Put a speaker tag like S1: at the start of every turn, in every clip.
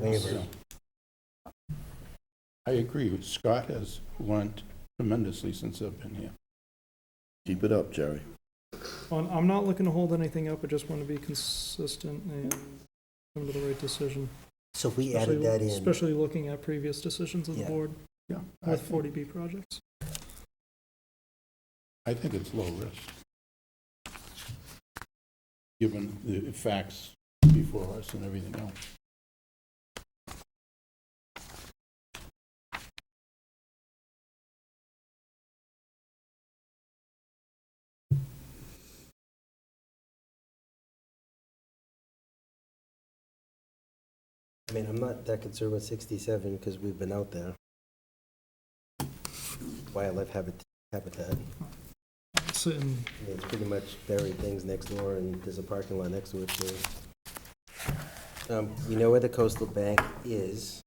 S1: labor.
S2: I agree. Scott has learned tremendously since I've been here.
S3: Keep it up, Jerry.
S4: Well, I'm not looking to hold anything up, I just want to be consistent and come to the right decision.
S1: So if we added
S4: Especially-
S1: that in,
S4: Especially looking at previous decisions of the
S1: Yeah.
S4: board
S2: Yeah. I
S4: with
S2: think-
S4: 40B projects.
S2: I think it's low risk. Given the facts before us and everything else.
S1: I mean, I'm not that concerned with 67 because we've been out there. Wildlife habit- habitat. I mean,
S4: So, and
S1: It's pretty much buried things next door and there's a parking lot next to it too. Um, We know where the coastal bank is.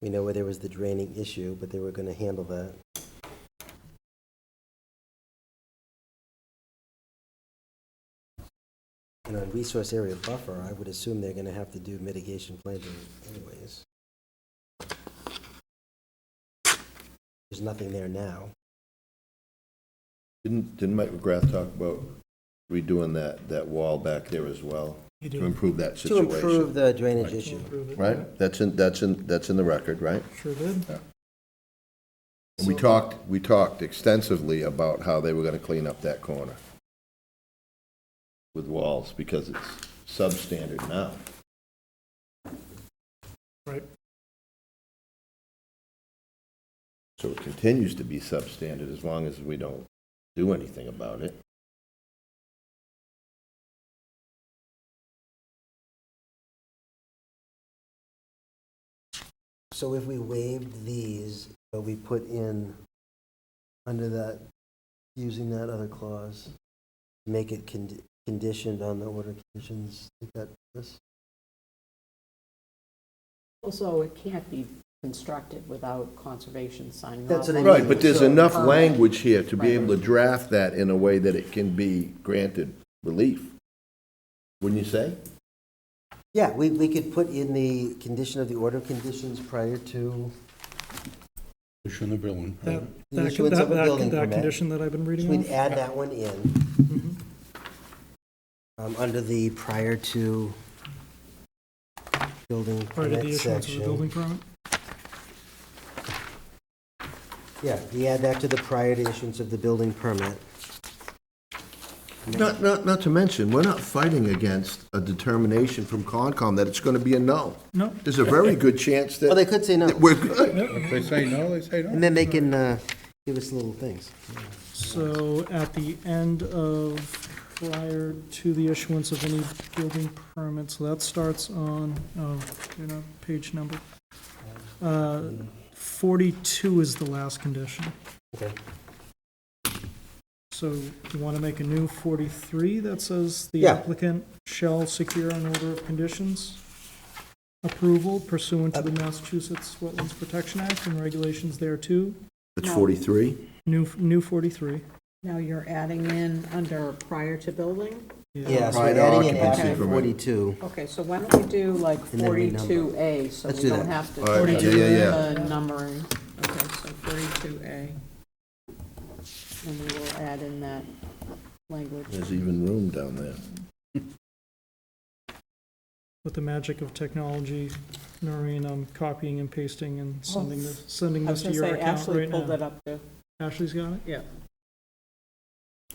S1: We know where there was the draining issue, but they were going to handle that. And on resource area buffer, I would assume they're gonna have to do mitigation planting anyways. There's nothing there now.
S3: Didn't, didn't Mike McGrath talk about redoing that, that wall back there as well? To improve that
S1: To improve
S3: situation,
S1: the drainage
S3: Right.
S4: we'll
S1: issue.
S4: approve it.
S3: right? That's in, that's in, that's in the record, right?
S4: Yeah, Sure did.
S3: And we
S4: So-
S3: talked, we talked extensively about how they were gonna clean up that corner with walls, because it's substandard now.
S4: Right.
S3: So it continues to be substandard as long as we don't do anything about it.
S1: So if we waived these, but we put in, under that, using that other clause, make it condi- conditioned on the order conditions, like that, this,
S5: Also, it can't be constructed without conservation signing off.
S1: That's what I
S5: on
S1: mean.
S5: it.
S3: Right, but there's
S5: So-
S3: enough
S1: um,
S5: Permit.
S3: language here to be
S5: Right.
S3: able to draft that in a way that it can be granted relief. Wouldn't you say?
S1: Yeah, we, we could put in the condition of the order conditions prior to,
S2: Pushing the building
S4: That,
S2: permit.
S1: The
S4: that,
S1: issuance
S4: that,
S1: of a building
S4: that, that
S1: permit.
S4: condition that I've been
S1: so
S4: reading
S1: we'd
S4: off.
S1: add that one in,
S4: Mhm.
S1: um, under the prior to building
S4: Prior to the
S1: permit
S4: issuance of the building
S1: section.
S4: permit.
S1: Yeah, we add that to the prior to issuance of the building permit.
S3: Not, not, not to mention, we're not fighting against a determination from Concom that it's gonna be a no.
S4: No,
S3: There's a very good chance
S1: Well, they
S3: that
S1: could say no,
S3: that we're good.
S2: If they say no, they say no.
S1: and then they can, uh, give us little things.
S4: so at the end of, prior to the issuance of any building permits, that starts on, oh, you know, page number. Uh, 42 is the last condition.
S1: Okay.
S4: So you want to make a new 43 that says the
S1: Yeah.
S4: applicant shall secure an order of conditions approval pursuant to the Massachusetts Wetlands Protection Act and regulations thereto,
S3: It's forty-three?
S4: new, new 43.
S5: Now you're adding in under prior to building?
S1: Yeah, so we're
S3: Prior to
S1: adding in
S3: occupancy
S1: after
S3: permit.
S1: forty-two.
S5: Okay, so why don't we do like
S1: And then renumber.
S5: 42A, so
S1: Let's
S5: we
S1: do
S5: don't
S1: that.
S5: have to.
S3: All right,
S5: put
S3: yeah,
S5: in
S3: yeah, yeah.
S5: The numbering, okay, so 42A. And we will add in that language.
S3: There's even room down there.
S4: With the magic of technology, Noreen, I'm copying and pasting and sending this, sending
S5: Oh, I
S4: this
S5: was
S4: to
S5: gonna
S4: your
S5: say,
S4: account
S5: Ashley
S4: right
S5: pulled it
S4: now.
S5: up too.
S4: Ashley's got it?
S5: Yeah.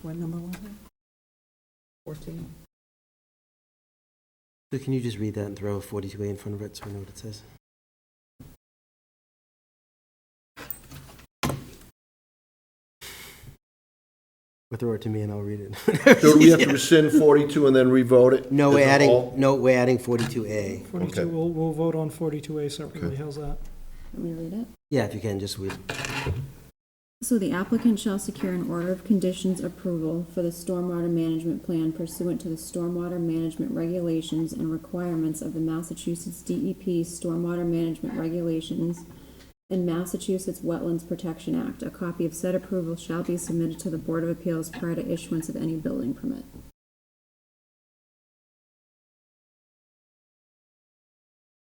S5: What number was it? 14.
S1: So can you just read that and throw forty-two A in front of it so we know what it says? Or throw it to me and I'll read it.
S3: So do we have to rescind forty-two and then revote it?
S1: No, we're
S3: As a
S1: adding,
S3: whole?
S1: no, we're adding forty-two A.
S4: 42,
S3: Okay.
S4: we'll, we'll vote on 42A separately, how's that?
S6: Let me read it.
S1: Yeah, if you can, just read.
S6: So the applicant shall secure an order of conditions approval for the stormwater management plan pursuant to the stormwater management regulations and requirements of the Massachusetts DEP Stormwater Management Regulations and Massachusetts Wetlands Protection Act. A copy of said approval shall be submitted to the Board of Appeals prior to issuance of any building permit.